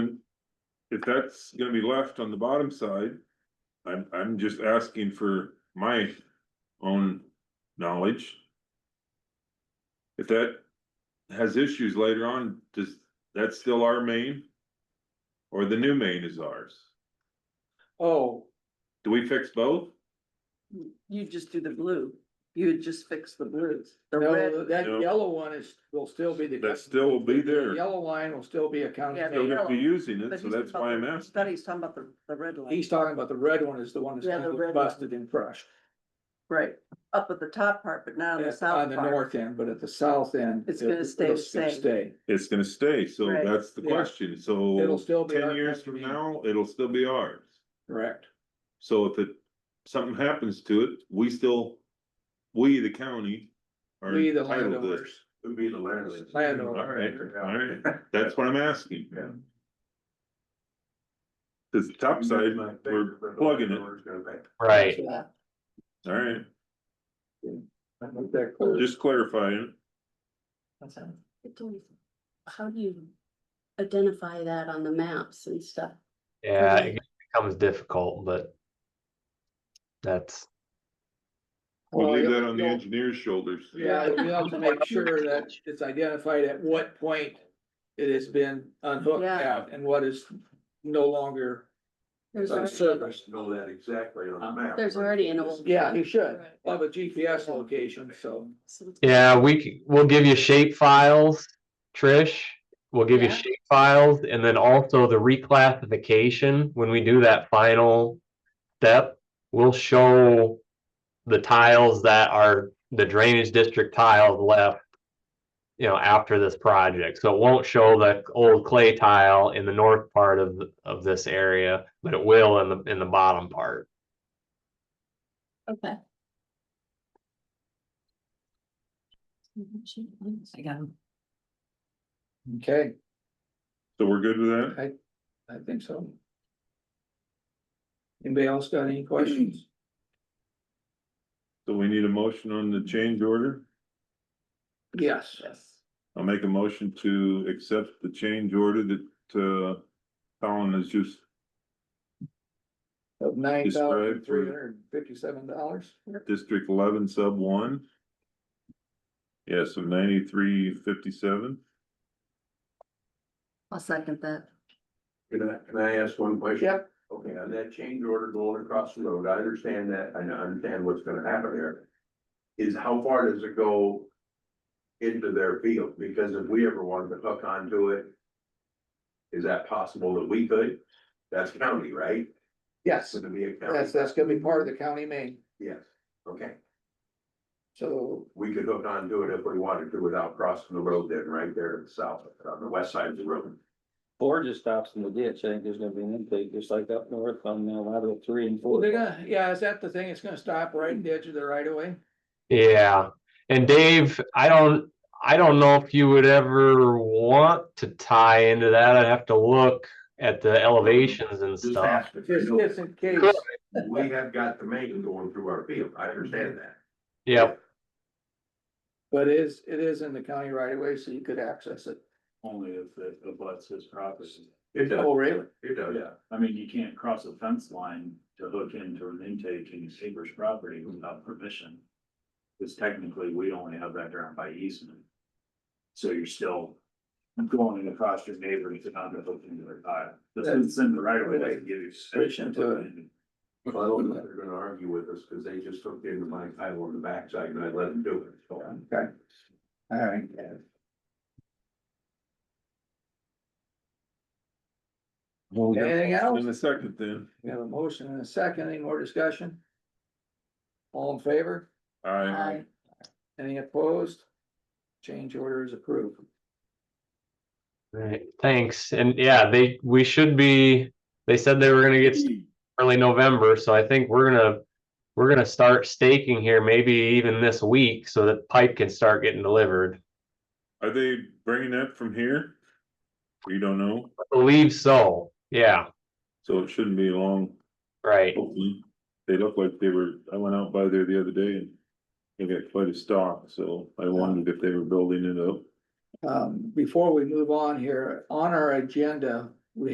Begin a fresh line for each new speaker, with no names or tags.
if that's gonna be left on the bottom side, I'm, I'm just asking for my own knowledge. If that has issues later on, does, that's still our main? Or the new main is ours?
Oh,
Do we fix both?
You just do the blue, you would just fix the blues, the
no,
red,
that
No.
yellow one is, will still be the.
That still will be
The
there,
Yellow line will still be a county.
Yeah,
still
road.
gonna be using it,
But
so
he's
that's why I'm asking.
that he's talking about the, the red line,
He's talking about the red one is the one that's
Yeah,
gonna
the
get
red one.
busted and crushed.
right, up at the top part, but not on the
At-
south
On the
part.
north end, but at the south end.
It's gonna
it-
stay the
it's gonna
same.
Stay.
It's gonna stay, so
Right.
that's the
Yeah.
question, so.
It'll still be our
Ten years from
contribution.
now, it'll still be ours.
Correct.
So if it, something happens to it, we still, we, the county. are
We, the
entitled to this.
landowners.
Would be the landlord.
Landlord.
All right, all right, that's what I'm asking.
Yeah.
Cause the top side, we're plugging it,
Right.
Yeah,
all right,
Just
just clarifying,
that's it.
It's always- How do you identify that on the maps and stuff?
Yeah,
Okay.
it becomes difficult, but that's
we'll
Well,
leave
yeah,
that on the
you'll-
engineer's shoulders.
Yeah, we have to make sure that it's identified at what point it has been unhooked
Yeah.
out and what is no longer
There's
Oh,
on
already,
service.
Know that exactly on the map.
there's already an old.
Yeah, you should.
Right.
Of a GPS location, so.
So-
yeah, we c- we'll give you shape files, Trish. We'll give you
Yeah.
shape files and then also the reclassification when we do that final step, we'll show the tiles that are the drainage district tiles left you know after this project. So it won't show the old clay tile in the north part of of this area, but it will in the in the bottom part.
Okay. I got 'em.
Okay,
So we're good with that?
I think so. Anybody else got any questions?
So we need a motion on the change order?
Yes.
Yes.
I'll make a motion to accept the change order that, uh, Colin has just,
Of nine thousand three hundred and fifty-seven dollars.
District eleven, sub one. Yeah, so ninety-three fifty-seven.
I'll second that,
Can I, can I ask one question?
Yep.
Okay, on that change order going across the road, I understand that, I know- I understand what's gonna happen there. Is how far does it go into their field? Because if we ever wanted to hook onto it, is that possible that we could? That's county, right?
Yes,
Would it be a county?
that's, that's gonna be part of the county main,
Yes, okay.
so,
We could hook onto it if we wanted to without crossing the road then, right there in the south, on the west side of the road.
Or just stops in the ditch, I think there's gonna be an intake, just like up north on uh, lateral three and
well,
four.
they're gonna, yeah, is that the thing? It's gonna stop right in the edge of the right of way?
Yeah. And Dave, I don't I don't know if you would ever want to tie into that. I'd have to look at the elevations and
Just
stuff.
ask if you
Just,
know.
just in case,
We have got the main going through our field, I understand that.
Yep.
but it is, it is in the county right of way, so you could access it.
Only if it abuts his property.
It does,
Oh, really?
it does.
Yeah, I mean, you can't cross a fence line to hook into an intake in your neighbor's property without permission. Because technically, we only have that ground by easement. So you're still going across your neighbor to not hook into their tile. The fence in the right of way doesn't give you. permission to hook in.
Well, I don't know if they're gonna argue with us, cause they just hooked into my tile on the backside and I let them do it, so.
Okay. All right.
Well, we got
Anything
motion
else?
In a second then,
We have a motion and a second, any more discussion? All in favor?
I,
I,
Any opposed? Change order is approved.
Right. Thanks. And yeah, they we should be they said they were gonna get started early November, so I think we're gonna we're gonna start staking here maybe even this week so that pipe can start getting delivered.
are they bringing that from here? We don't know,
I believe so. Yeah,
so it shouldn't be long,
right.
hopefully. They look like they were, I went out by there the other day and they got quite a stock, so I wondered if they were building it up.
Um, before we move on here, on our agenda,